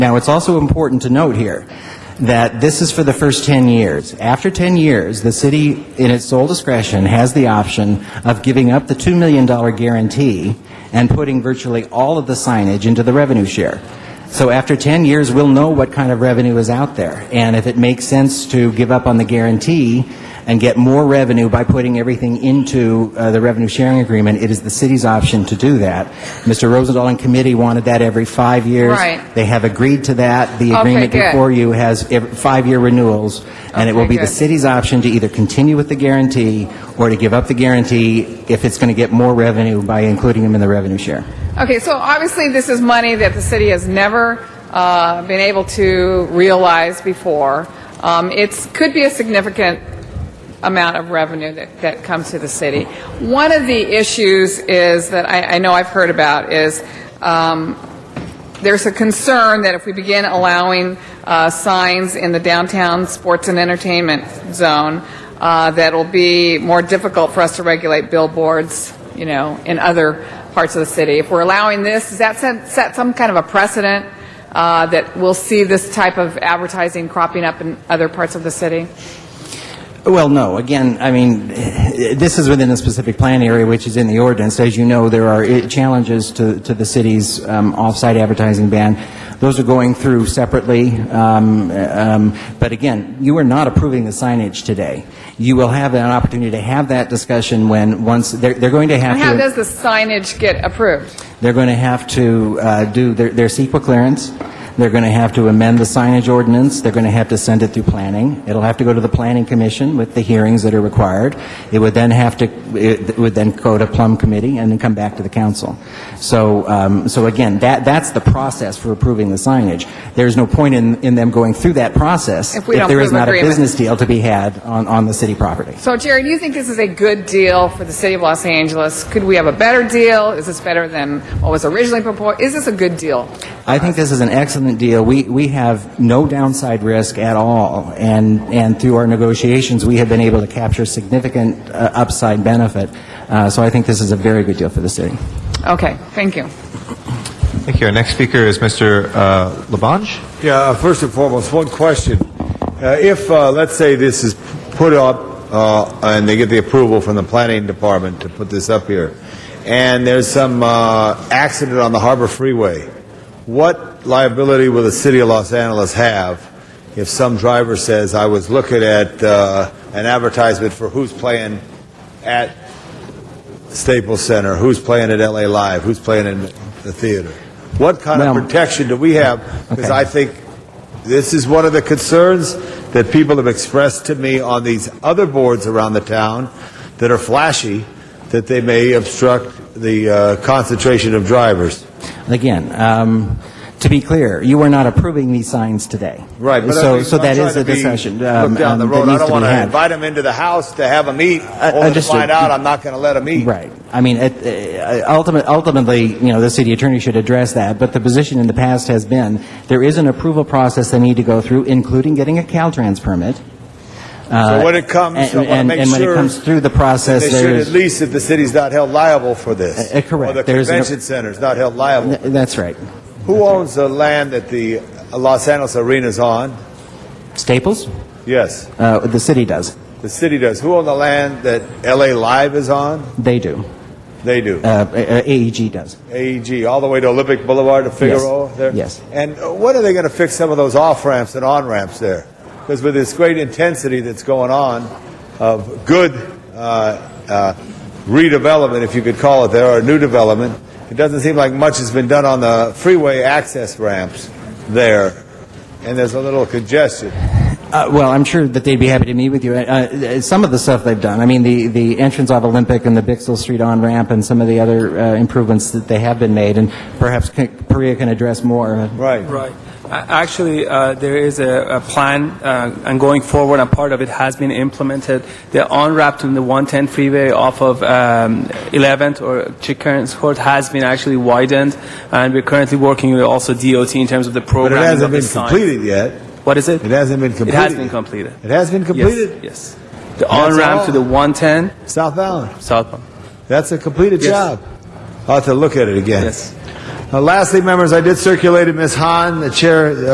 Now, it's also important to note here that this is for the first 10 years. After 10 years, the city, in its sole discretion, has the option of giving up the $2 million guarantee and putting virtually all of the signage into the revenue share. So after 10 years, we'll know what kind of revenue is out there. And if it makes sense to give up on the guarantee and get more revenue by putting everything into uh, the revenue sharing agreement, it is the city's option to do that. Mr. Rosendahl and committee wanted that every five years. Right. They have agreed to that. The Okay, agreement good. before you has ev- five-year renewals, and it will Okay, be the good. city's option to either continue with the guarantee or to give up the guarantee if it's going to get more revenue by including them in the revenue share. Okay, so obviously this is money that the city has never uh, been able to realize before. It could be a significant amount of revenue that that comes to the city. One of the issues is that I I know I've heard about is um, there's a concern that if we begin allowing uh, signs in the downtown sports and entertainment zone, uh, that it'll be more difficult for us to regulate billboards, you know, in other parts of the city. If we're allowing this, does that set, set some kind of a precedent uh, that we'll see this type of advertising cropping up in other parts of the city? Well, no. Again, I mean, this is within a specific plan area, which is in the ordinance. As you know, there are eh, challenges to, to the city's um, off-site advertising ban. Those are going through separately. Um, eh, um, But again, you are not approving the signage today. You will have an opportunity to have that discussion when, once, they're, they're going to have to... How does the signage get approved? They're going to have to uh, do their their CEQA clearance. They're going to have to amend the signage ordinance. They're going to have to send it through planning. It'll have to go to the planning commission with the hearings that are required. It would then have to, it would then go to plum committee and then come back to the council. So, um, so again, that, that's the process for approving the signage. There's no point in, in them going through that process If we don't there is prove not a agreement. business deal to be had on, on the city property. So, Jerry, do you think this is a good deal for the city of Los Angeles? Could we have a better deal? Is this better than what was originally proposed? Is this a good deal? I think this is an excellent deal. We, we have no downside risk at all, and, and through our negotiations, we have been able to capture significant uh, upside benefit. Uh, So I think this is a very good deal for the city. Okay, thank you. Thank you. Our next speaker is Mr. Uh, Labange. Yeah, uh, first and foremost, one question. Uh, If, uh, let's say this is put up, uh, and they get the approval from the planning department to put this up here, and there's some uh, accident on the Harbor Freeway, what liability will the city of Los Angeles have if some driver says, "I was looking at uh, an advertisement for who's playing at Staples Center, who's playing at LA Live, who's playing in the theater. What kind of Well- protection do we have? Because Okay. I think this is one of the concerns that people have expressed to me on these other boards around the town that are flashy, that they may obstruct the uh, concentration of drivers. Again, um, to be clear, you are not approving these signs today. Right, but I So, mean, so I'm that trying is to a be- discussion um, Look down the um, road. that I needs don't to be want to had. Uh, invite them into the house to have them eat, only to understood. find out I'm not going to let them eat. Right. I mean, it- uh, ultimate- ultimately, you know, the city attorney should address that, but the position in the past has been, there is an approval process they need to go through, including getting a Caltrans permit. Uh, So when it comes, I and- want to and- make and sure. when it comes through the process, that They should there's- at least, if the city's not held liable for this. Uh, uh, correct. Or the There's an- convention center's not held liable. Th- That's right. Who owns the land that the uh, Los Angeles Arena's on? Staples? Yes, Uh, The city does. the city does. Who owns the land that LA Live is on? They do. They do. Uh, uh, AEG does. AEG, all the way to Olympic Boulevard to Figueroa there? Yes. And uh, when are they going to fix some of those off ramps and on ramps there? Because with this great intensity that's going on of good uh, uh, redevelopment, if you could call it there, or new development, it doesn't seem like much has been done on the freeway access ramps there. And there's a little congestion. Uh, Well, I'm sure that they'd be happy to meet with you. Uh, uh, Some of the stuff they've done, I mean, the the entrance off Olympic and the Bixel Street on-ramp and some of the other uh, improvements that they have been made, and perhaps K- Perea can address more. Right. Right. A- Actually, uh, there is a, a plan, uh, and going forward, and part of it has been implemented. The on-ramp in the 110 freeway off of um, 11th or Chickens Court has been actually widened, and we're currently working with also DOT in terms of the But it program. hasn't been completed yet. What is it? It hasn't been It completed. has been completed. It has been Yes, completed? Yes. The on-ramp to all. the 110 South Island. southbound. That's a completed Yes. job. I'll have to look at it again. Yes. Uh, lastly, members, I did circulate it. Ms. Hahn, the chair,